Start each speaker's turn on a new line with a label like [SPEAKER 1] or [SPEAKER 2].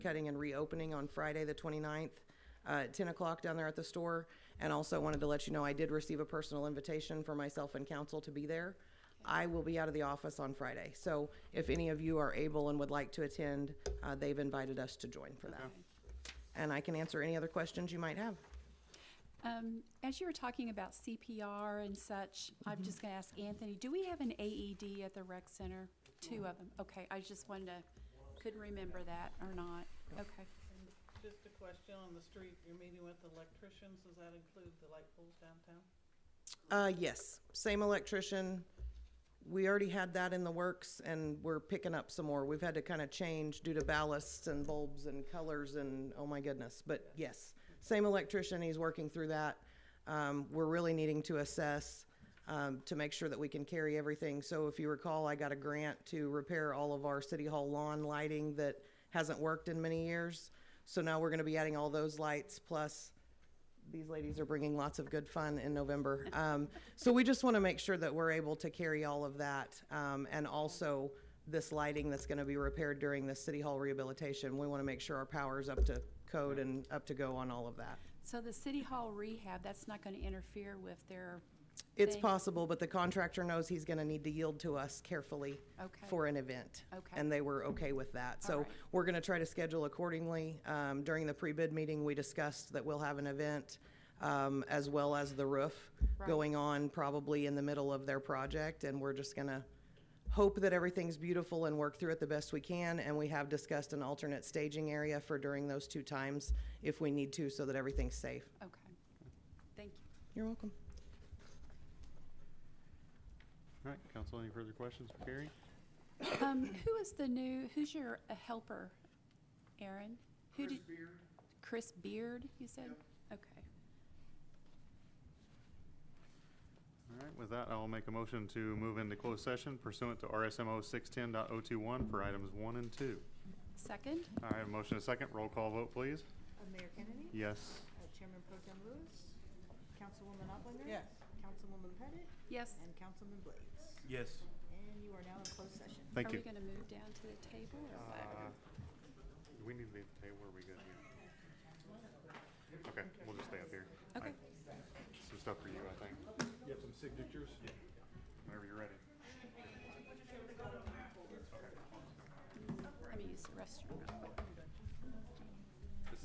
[SPEAKER 1] cutting and reopening on Friday, the 29th, uh, at 10 o'clock down there at the store. And also wanted to let you know, I did receive a personal invitation for myself and council to be there. I will be out of the office on Friday. So if any of you are able and would like to attend, uh, they've invited us to join for that. And I can answer any other questions you might have.
[SPEAKER 2] Um, as you were talking about CPR and such,
[SPEAKER 1] Mm-hmm.
[SPEAKER 2] I'm just gonna ask Anthony, do we have an AED at the rec center? Two of them, okay, I just wanted to, couldn't remember that or not, okay.
[SPEAKER 3] Just a question on the street, you're meeting with electricians, does that include the light poles downtown?
[SPEAKER 1] Uh, yes, same electrician. We already had that in the works and we're picking up some more. We've had to kind of change due to ballasts and bulbs and colors and, oh my goodness. But yes, same electrician, he's working through that. Um, we're really needing to assess, um, to make sure that we can carry everything. So if you recall, I got a grant to repair all of our city hall lawn lighting that hasn't worked in many years. So now we're gonna be adding all those lights plus these ladies are bringing lots of good fun in November. Um, so we just want to make sure that we're able to carry all of that. Um, and also this lighting that's going to be repaired during the city hall rehabilitation. We want to make sure our power is up to code and up to go on all of that.
[SPEAKER 2] So the city hall rehab, that's not gonna interfere with their,
[SPEAKER 1] It's
[SPEAKER 2] Thank-
[SPEAKER 1] possible, but the contractor knows he's going to need to yield to us carefully
[SPEAKER 2] Okay.
[SPEAKER 1] for an event.
[SPEAKER 2] Okay.
[SPEAKER 1] And they were okay with that.
[SPEAKER 2] All
[SPEAKER 1] So
[SPEAKER 2] right.
[SPEAKER 1] we're going to try to schedule accordingly. Um, During the pre-bid meeting, we discussed that we'll have an event um, as well as the roof
[SPEAKER 2] Right.
[SPEAKER 1] going on probably in the middle of their project. And we're just going to hope that everything's beautiful and work through it the best we can. And we have discussed an alternate staging area for during those two times if we need to, so that everything's safe.
[SPEAKER 2] okay. Thank you.
[SPEAKER 1] You're welcome.
[SPEAKER 4] All right, council, any further questions for Gary?
[SPEAKER 2] Um, who is the new, who's your uh, helper, Aaron? Who did Chris Beard, you said? Okay.
[SPEAKER 4] All right, with that, I will make a motion to move into closed session pursuant to RSMO 610.021 for items one and two.
[SPEAKER 2] Second?
[SPEAKER 4] All right, a motion and a second. Roll call vote, please.
[SPEAKER 5] Uh, Mayor Kennedy?
[SPEAKER 4] Yes.
[SPEAKER 5] Uh, Chairman Pro Tem Lewis? Councilwoman Uplinger?
[SPEAKER 3] Yes.
[SPEAKER 5] Councilwoman Pettit?
[SPEAKER 2] Yes.
[SPEAKER 5] And Councilman Blades?
[SPEAKER 6] Yes.
[SPEAKER 5] And you are now in closed session.
[SPEAKER 4] Thank
[SPEAKER 2] Are
[SPEAKER 4] you.
[SPEAKER 2] we gonna move down to the table or what?
[SPEAKER 4] Uh, do We need to leave the table, or are we good here? Okay, we'll just stay up here.
[SPEAKER 2] Okay.
[SPEAKER 4] I- Some stuff for you, I think.
[SPEAKER 6] You have some signatures? Yeah.
[SPEAKER 4] Whenever you're ready.
[SPEAKER 2] Let me use the restroom real quick.